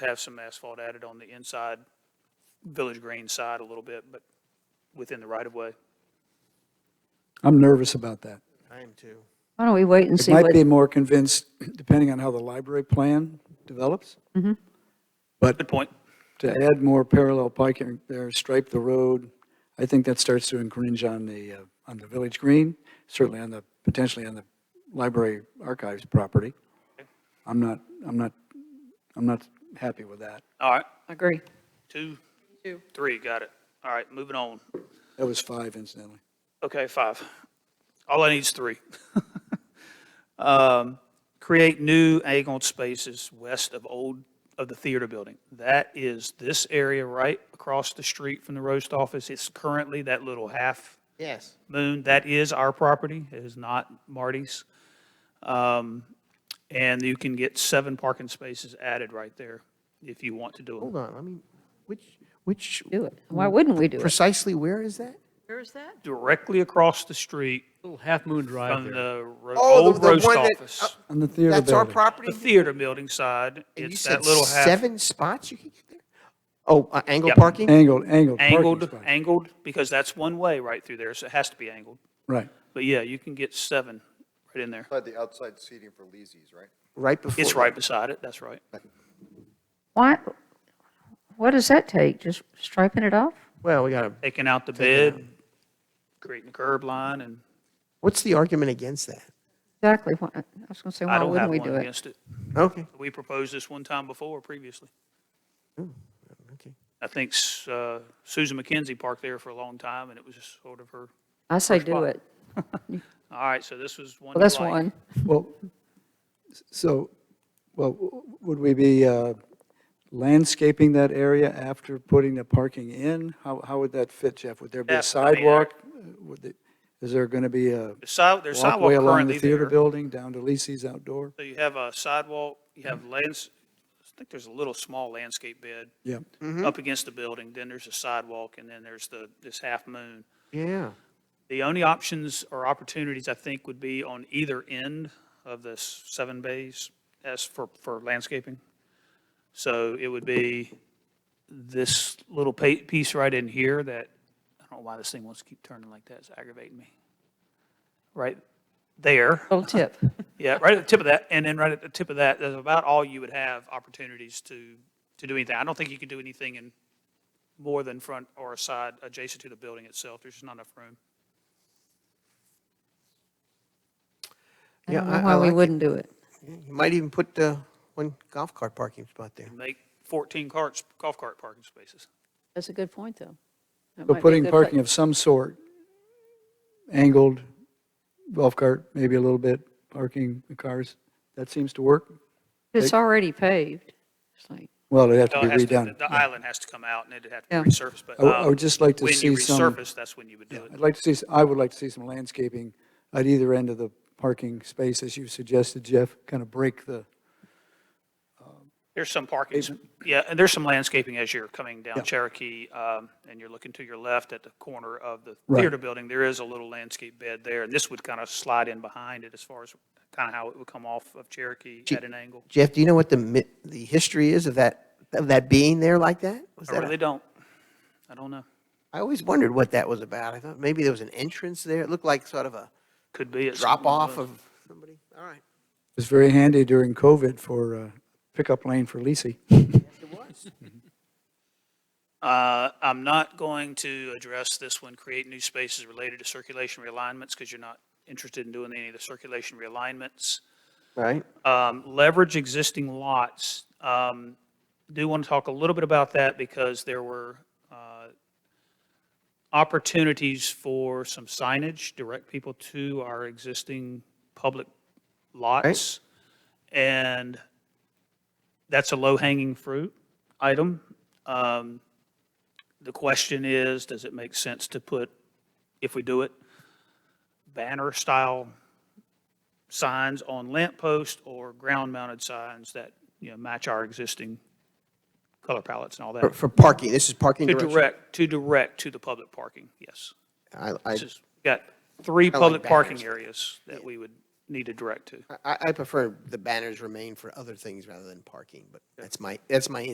have some asphalt added on the inside, Village Green side a little bit, but within the right of way. I'm nervous about that. I am too. Why don't we wait and It see might what, be more convinced, depending on how the library plan develops. But Good point. to add more parallel parking there, stripe the road, I think that starts to infringe on the, uh, on the village green, certainly on the, potentially on the library archives property. I'm not, I'm not, I'm not happy with that. All right, agree. two, Two. three, got it. All right, moving on. That was five incidentally. Okay, five. All I need is three. Um, Create new angled spaces west of old, of the theater building. That is this area right across the street from the roast office. It's currently that little half Yes. Moon, that is our property, it is not Marty's. Um, And you can get seven parking spaces added right there if you want to do Hold it. on, I mean, which, which, Do it. Hmm. Why wouldn't we do it? precisely where is that? Where is that? Directly across the street Little Half Moon Drive from there. the ro- Oh, the- old the roast one that- office. On the theater That's our building. The property? theater building side, And you it's said that little half seven spots you can get there? Oh, uh, angle Yep. parking? Angled, angled. parking angled, spot. angled, because that's one way right through there, so it has to be angled. Right. But yeah, you can get seven right in there. Outside the outside seating for Leesy's, right? Right before. It's right beside it, that's right. Why, what does that take? Just striping it off? Well, we gotta, Taking out the Taking bed, creating a curb line, and what's the argument against that? Exactly. Why- I was going to say, I why don't have wouldn't we one do it? against it. Okay, We proposed this one time before, previously. okay. I think S- uh, Susan McKenzie parked there for a long time, and it was just sort of her, I say do spot. it. all right, so this was one. Well, you that's like. one. Well, s- so, well, w- would we be uh, landscaping that area after putting the parking in? How, how would that fit, Jeff? Would there be Yeah, I a mean, uh, sidewalk? Would the- Is there going to be a The side- There's sidewalk walkway along currently the theater there. building down to Lisi's outdoor? So you have a sidewalk, you have lands, I think there's a little small landscape bed Yeah, up against the building, then there's a sidewalk, and then there's the, this half moon. Yeah. The only options or opportunities, I think, would be on either end of this seven bays as for, for landscaping. So it would be this little pa- piece right in here that, I don't know why this thing wants to keep turning like that, it's aggravating me. Right there, Little tip. yeah, right at the tip of that, and then right at the tip of that, that's about all you would have opportunities to, to do anything. I don't think you could do anything in more than front or side adjacent to the building itself, there's just not enough room. I Yeah, don't I- know I why we like it. wouldn't do it. You might even put uh, one golf cart parking spot there. make 14 carts, golf cart parking spaces. That's a good point, though. That might be but a putting good parking place. of some sort, angled, golf cart, maybe a little bit, parking the cars, that seems to work? It's already paved. It's like, Well, it'd have to No, be it has to- redone. The island has to come out and it'd have Yeah. to be resurfaced, but. I w- I um, would just like to see some- When you resurface, that's when you would do it. I'd like to see, s- I would like to see some landscaping at either end of the parking space, as you suggested, Jeff, kind of break the, There's some parking, s- yeah, and there's some landscaping as you're coming down Yeah. Cherokee, um, and you're looking to your left at the corner of the Right. theater building. There is a little landscape bed there, and this would kind of slide in behind it as far as kind of how it would come off of Cherokee at an angle. Jeff, do you know what the, mi- the history is of that, of that being there like that? Was I that a- really don't, I don't know. I always wondered what that was about. I thought maybe there was an entrance there. It looked like sort of a Could be. it's- drop off of somebody. All right. was very handy during COVID for uh, pickup lane for Lisi. Uh, I'm not going to address this one, create new spaces related to circulation realignments, because you're not interested in doing any of the circulation realignments. Right. Um, Leverage existing lots. Um, Do want to talk a little bit about that because there were uh, opportunities for some signage, direct people to our existing public lots. And that's a low-hanging fruit item. Um, The question is, does it make sense to put, if we do it, banner-style signs on lamp posts or ground-mounted signs that, you know, match our existing color palettes and all For, that? for parking. This is parking To direction. direct, to direct to the public parking, yes. I, I, This is- Got three like public parking banners. areas that we would need to direct to. I, I prefer the banners remain for other things rather than parking, but that's my, that's my